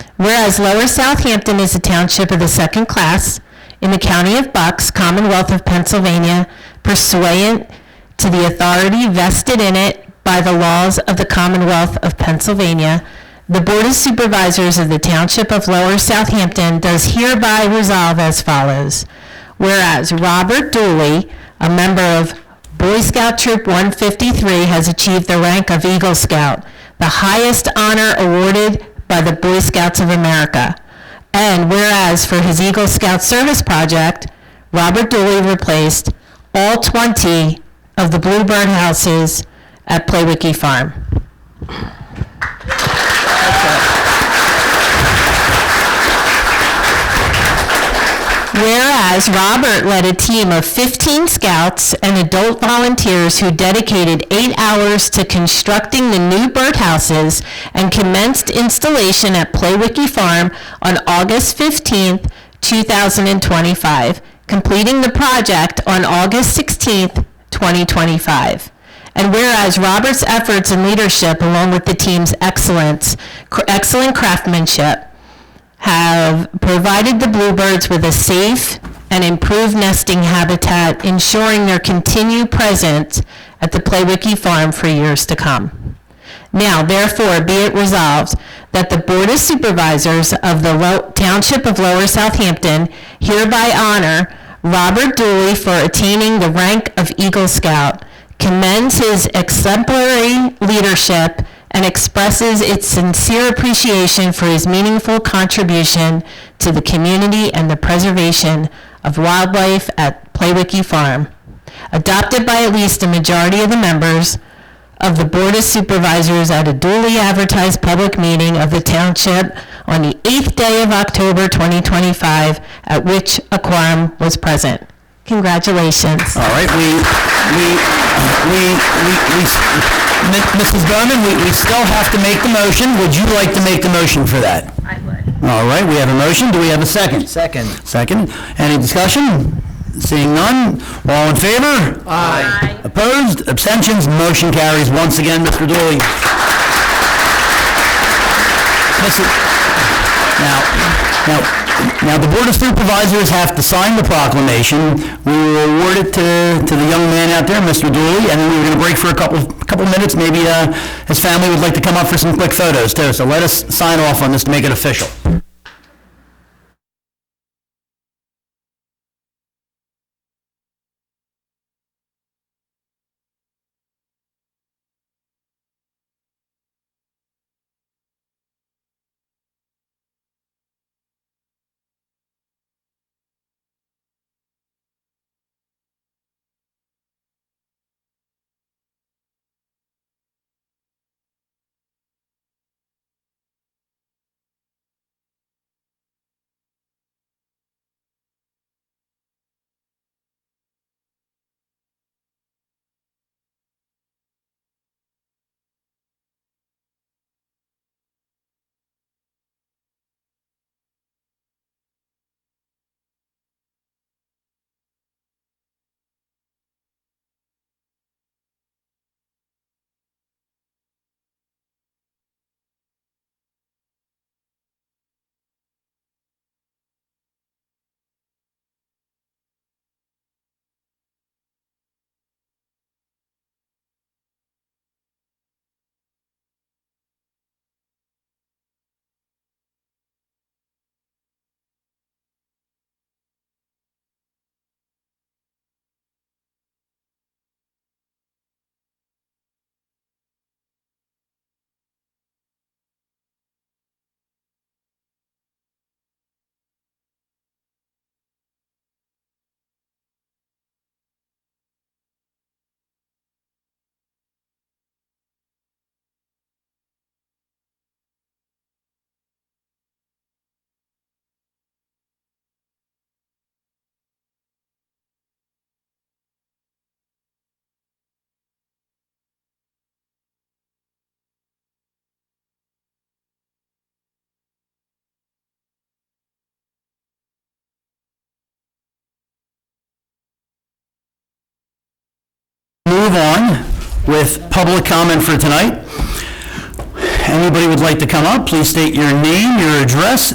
Whereas Lower Southampton is a township of the second class in the county of Bucks, Commonwealth of Pennsylvania, pursuant to the authority vested in it by the laws of the Commonwealth of Pennsylvania, the Board of Supervisors of the Township of Lower Southampton does hereby resolve as follows. Whereas Robert Dooley, a member of Boy Scout Troop 153, has achieved the rank of Eagle Scout, the highest honor awarded by the Boy Scouts of America. And whereas for his Eagle Scout service project, Robert Dooley replaced all 20 of the Bluebird houses at Playwicky Farm. Whereas Robert led a team of 15 scouts and adult volunteers who dedicated eight hours to constructing the new birdhouses and commenced installation at Playwicky Farm on August 15th, 2025, completing the project on August 16th, 2025. And whereas Robert's efforts and leadership, along with the team's excellence, cr- excellent craftsmanship, have provided the bluebirds with a safe and improved nesting habitat, ensuring their continued presence at the Playwicky farm for years to come. Now, therefore, be it resolved that the Board of Supervisors of the Lo- Township of Lower Southampton hereby honor Robert Dooley for attaining the rank of Eagle Scout, commends his exemplary leadership, and expresses its sincere appreciation for his meaningful contribution to the community and the preservation of wildlife at Playwicky Farm. Adopted by at least a majority of the members, of the Board of Supervisors at a duly advertised public meeting of the township on the 8th day of October 2025, at which a quorum was present. Congratulations. All right, we, we, we, we, we, M- Mrs. Bowman, we, we still have to make the motion. Would you like to make the motion for that? I would. All right, we have a motion. Do we have a second? Second. Second. Any discussion? Seeing none. All in favor? Aye. Opposed? Abstentions? Motion carries. Once again, Mr. Dooley. Mrs. Now, now, now the Board of Supervisors have to sign the proclamation. We will award it to, to the young man out there, Mr. Dooley, and then we're gonna break for a couple, couple minutes. Maybe, uh, his family would like to come up for some quick photos too. So let us sign off on this to make it official. move on with public comment for tonight. Anybody would like to come up, please state your name, your address,